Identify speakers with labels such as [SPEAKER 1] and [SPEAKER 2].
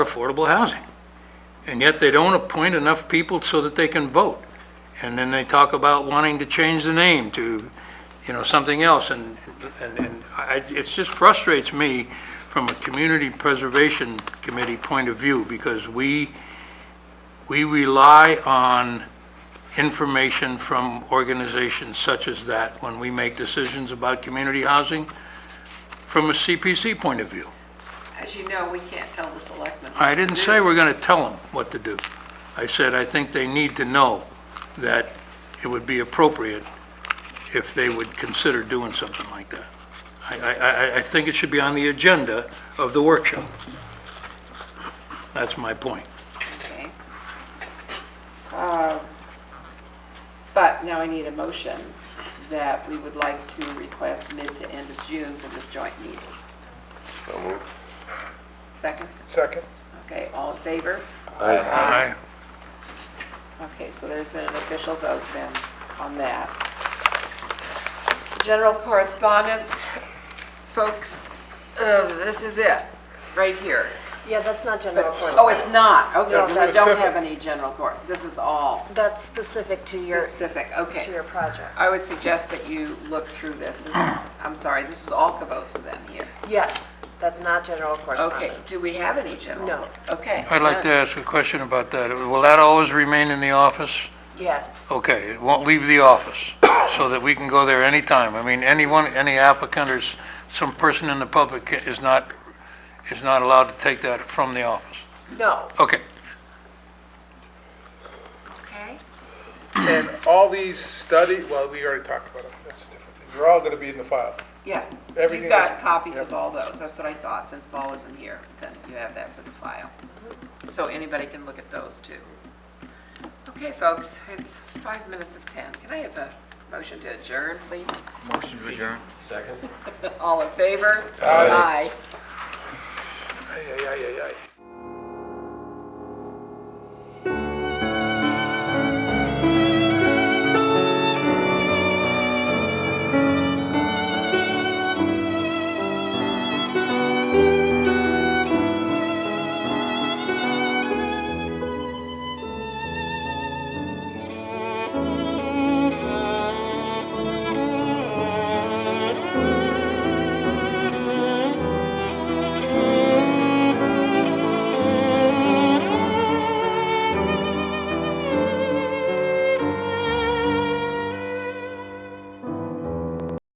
[SPEAKER 1] affordable housing. And yet they don't appoint enough people so that they can vote. And then they talk about wanting to change the name to, you know, something else. And, and, and I, it just frustrates me from a community preservation committee point of view because we, we rely on information from organizations such as that when we make decisions about community housing from a CPC point of view.
[SPEAKER 2] As you know, we can't tell the selectmen.
[SPEAKER 1] I didn't say we're going to tell them what to do. I said, I think they need to know that it would be appropriate if they would consider doing something like that. I, I, I- I think it should be on the agenda of the workshop. That's my point.
[SPEAKER 2] Okay. Um, But now I need a motion that we would like to request mid to end of June for this joint meeting.
[SPEAKER 3] So moved.
[SPEAKER 2] Second?
[SPEAKER 4] Second.
[SPEAKER 2] Okay, all in favor?
[SPEAKER 3] Aye.
[SPEAKER 1] Aye.
[SPEAKER 2] Okay, so there's been an official vote then on that. General correspondence, folks, uh, this is it, right here.
[SPEAKER 5] Yeah, that's not general
[SPEAKER 2] Oh,
[SPEAKER 5] correspondence.
[SPEAKER 2] it's not, okay,
[SPEAKER 4] No,
[SPEAKER 2] so I don't
[SPEAKER 4] specific.
[SPEAKER 2] have any general cor, this is all
[SPEAKER 5] That's specific to your,
[SPEAKER 2] specific, okay.
[SPEAKER 5] to your project.
[SPEAKER 2] I would suggest that you look through this. This is, I'm sorry, this is all Cabosa then here.
[SPEAKER 5] Yes, that's not general
[SPEAKER 2] Okay,
[SPEAKER 5] correspondence.
[SPEAKER 2] do we have any general?
[SPEAKER 5] No.
[SPEAKER 2] Okay.
[SPEAKER 1] I'd like to ask a question about that. Will that always remain in the office?
[SPEAKER 5] Yes.
[SPEAKER 1] Okay, it won't leave the office, so that we can go there anytime. I mean, anyone, any applicant or s- some person in the public ca- is not, is not allowed to take that from the office.
[SPEAKER 5] No.
[SPEAKER 1] Okay,
[SPEAKER 2] Okay.
[SPEAKER 4] And all these study, well, we already talked about them, that's a different thing. They're all gonna be in the file.
[SPEAKER 2] Yeah.
[SPEAKER 4] Everything
[SPEAKER 2] You've got
[SPEAKER 4] is-
[SPEAKER 2] copies of
[SPEAKER 4] yep.
[SPEAKER 2] all those. That's what I thought. Since Paul isn't here, then you have that for the file. So anybody can look at those too. Okay, folks, it's five minutes of 10. Can I have a motion to adjourn, please?
[SPEAKER 6] Motion to adjourn.
[SPEAKER 3] Second.
[SPEAKER 2] All in favor? Aye.